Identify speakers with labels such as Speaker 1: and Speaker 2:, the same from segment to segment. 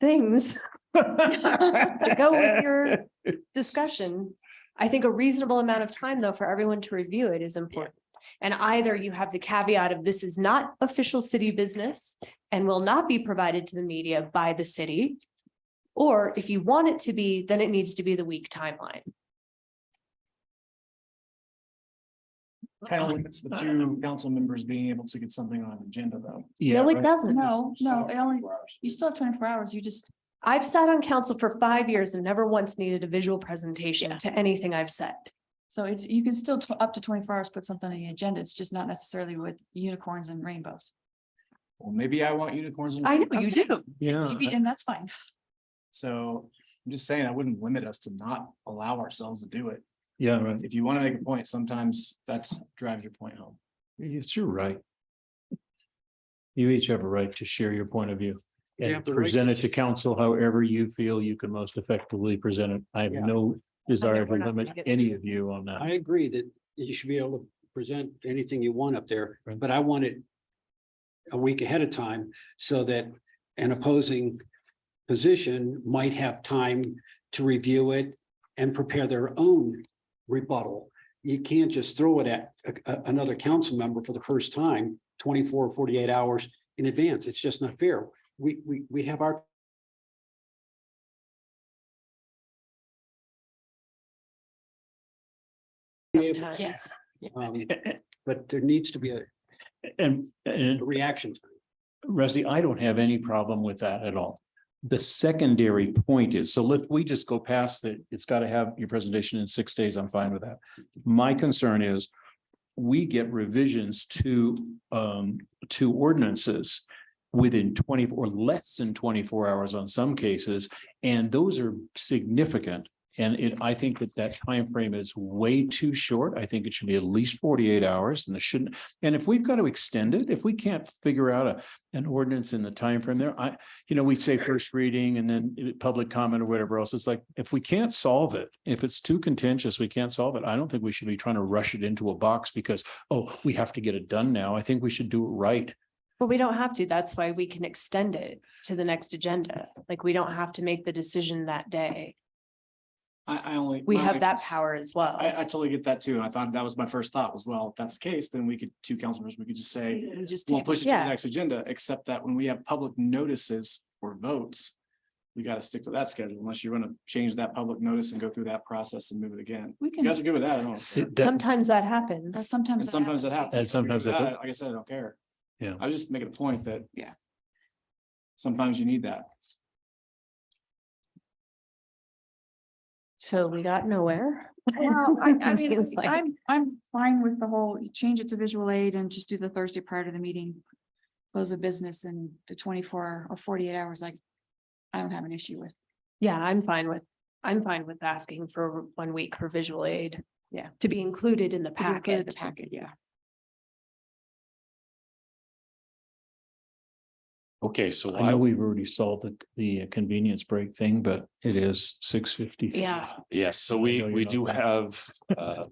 Speaker 1: things to
Speaker 2: To
Speaker 1: go with your discussion. I think a reasonable amount of time, though, for everyone to review it is important. And either you have the caveat of this is not official city business and will not be provided to the media by the city. Or if you want it to be, then it needs to be the week timeline.
Speaker 3: Kind of limits the two council members being able to get something on agenda though.
Speaker 1: No, it doesn't.
Speaker 2: No, no, it only, you still have twenty-four hours, you just,
Speaker 1: I've sat on council for five years and never once needed a visual presentation to anything I've said.
Speaker 2: so it, you can still tw- up to twenty-four hours, put something on the agenda, it's just not necessarily with unicorns and rainbows.
Speaker 3: Well, maybe I want unicorns. and-
Speaker 1: I know you do.
Speaker 4: Yeah,
Speaker 2: Maybe- And that's fine,
Speaker 3: So I'm just saying, I wouldn't limit us to not allow ourselves to do it.
Speaker 4: yeah, right.
Speaker 3: If you want to make a point, sometimes that's drives your point home.
Speaker 4: It's your right. You each have a right to share your point of view
Speaker 5: You
Speaker 4: and
Speaker 5: have the right
Speaker 4: present it to council however you feel you can most effectively present it. I have
Speaker 5: Yeah.
Speaker 4: no
Speaker 1: Okay,
Speaker 4: desire to
Speaker 1: we're not
Speaker 4: limit
Speaker 1: gonna get-
Speaker 4: any of you on that.
Speaker 5: I agree that you should be able to present anything you want up there,
Speaker 4: Right.
Speaker 5: but I want it a week ahead of time so that an opposing position might have time to review it and prepare their own rebuttal. You can't just throw it at a- a- another council member for the first time, 24 or 48 hours in advance. It's just not fair. We, we, we have our
Speaker 2: yes.
Speaker 5: um, But there needs to be a
Speaker 4: And, and
Speaker 5: reaction. time.
Speaker 4: Rusty, I don't have any problem with that at all. The secondary point is, so let, we just go past that, it's got to have your presentation in six days, I'm fine with that. My concern is we get revisions to um to ordinances within twenty or less than twenty-four hours on some cases, and those are significant. And it, I think that that time frame is way too short. I think it should be at least forty-eight hours and it shouldn't. And if we've got to extend it, if we can't figure out a an ordinance in the time frame there. I, you know, we say first reading and then i- public comment or whatever else. It's like, if we can't solve it, if it's too contentious, we can't solve it. I don't think we should be trying to rush it into a box because, oh, we have to get it done now. I think we should do it right.
Speaker 1: But we don't have to. That's why we can extend it to the next agenda. Like, we don't have to make the decision that day.
Speaker 3: I, I only.
Speaker 1: We
Speaker 3: my
Speaker 1: have
Speaker 3: only
Speaker 1: that
Speaker 3: cons-
Speaker 1: power as well.
Speaker 3: I, I totally get that too. and I thought that was my first thought was, well, if that's the case, then we could, two council members, we could just say,
Speaker 2: You just
Speaker 3: we'll
Speaker 2: table
Speaker 3: push it to the
Speaker 1: Yeah.
Speaker 3: next agenda, except that when we have public notices for votes, we got to stick to that schedule unless you want to change that public notice and go through that process and move it again.
Speaker 2: We
Speaker 3: You guys are
Speaker 2: can,
Speaker 3: good with that? I don't care.
Speaker 1: Sometimes that
Speaker 2: but
Speaker 1: happens.
Speaker 2: sometimes.
Speaker 3: And sometimes that happens.
Speaker 4: And sometimes that
Speaker 3: Like I said, I don't care.
Speaker 4: Yeah.
Speaker 3: I was just making a point that.
Speaker 2: Yeah.
Speaker 3: Sometimes you need that.
Speaker 1: So we got nowhere.
Speaker 2: Well, I, I mean,
Speaker 1: Seems like-
Speaker 2: I'm, I'm fine with the whole, you change it to visual aid and just do the Thursday prior to the meeting. Close the business and the twenty-four or forty-eight hours, like, I don't have an issue with.
Speaker 1: Yeah, I'm fine with, I'm fine with asking for one week for visual aid. Yeah. To be included in the
Speaker 2: to be part of The
Speaker 1: packet.
Speaker 2: packet, yeah.
Speaker 6: Okay, so
Speaker 4: I know
Speaker 6: I,
Speaker 4: we've already solved the, the convenience break thing, but it is six fifty.
Speaker 1: Yeah.
Speaker 6: yes, so
Speaker 4: I
Speaker 6: we,
Speaker 4: know
Speaker 6: we
Speaker 4: you're
Speaker 6: do
Speaker 4: not-
Speaker 6: have, uh,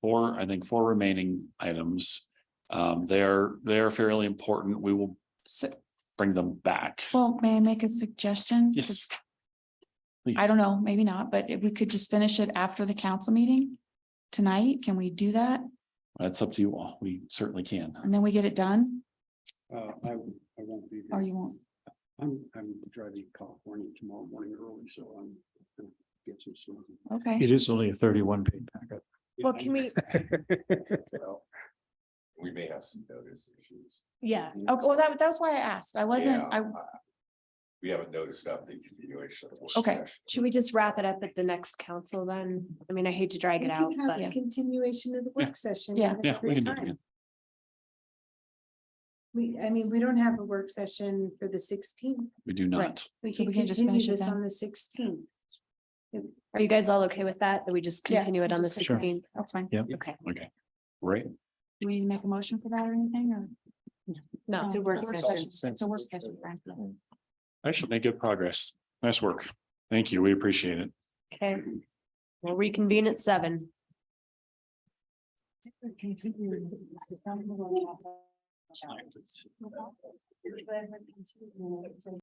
Speaker 6: four, I think, four remaining items. Um, they're, they're fairly important. We will
Speaker 2: So,
Speaker 6: bring them back.
Speaker 2: well, may I make a suggestion? 'Cause
Speaker 6: Yes,
Speaker 2: I don't know, maybe not, but if we could just finish it after the council meeting tonight, can we do that?
Speaker 6: that's up to you all. We certainly can.
Speaker 2: And then we get it done,
Speaker 5: Uh, I, I won't be.
Speaker 2: or
Speaker 5: here.
Speaker 2: you won't?
Speaker 5: I'm, I'm driving to California tomorrow morning early, so I'm gonna get some sleep.
Speaker 2: Okay,
Speaker 4: It is only a thirty-one page packet.
Speaker 1: Well, can we,
Speaker 7: We may have some notice issues.
Speaker 1: yeah,
Speaker 2: okay, Oh, well, that, that's why I asked, I wasn't, I,
Speaker 7: Yeah. We haven't noticed that the continuation. of the work
Speaker 2: Okay.
Speaker 7: session.
Speaker 1: should we just wrap it up at the next council then? I mean, I hate to drag it out, but.
Speaker 2: yeah.
Speaker 8: continuation of the
Speaker 6: Yeah.
Speaker 8: work session.
Speaker 2: Yeah.
Speaker 8: at
Speaker 6: Yeah, we
Speaker 8: every
Speaker 6: can do it
Speaker 8: time.
Speaker 6: again.
Speaker 8: We, I mean, we don't have a work session for the sixteenth.
Speaker 6: We do not.
Speaker 8: We
Speaker 2: So
Speaker 8: can
Speaker 2: we can just
Speaker 8: continue
Speaker 2: finish it
Speaker 8: this
Speaker 2: then.
Speaker 8: on the sixteenth.
Speaker 1: Are you guys all okay with that? That we just
Speaker 2: Yeah,
Speaker 1: continue it on the
Speaker 2: just- Sure.
Speaker 1: sixteenth?
Speaker 2: that's fine.
Speaker 4: Yeah.
Speaker 1: Okay,
Speaker 6: Right?
Speaker 2: Do we need to make a motion for that or anything, or?
Speaker 1: no,
Speaker 2: It's a work session. It's a work
Speaker 3: Consensus.
Speaker 2: session, Brian.
Speaker 6: Actually, made good progress. Nice work. Thank you. We appreciate it.
Speaker 1: okay. We'll reconvene at seven.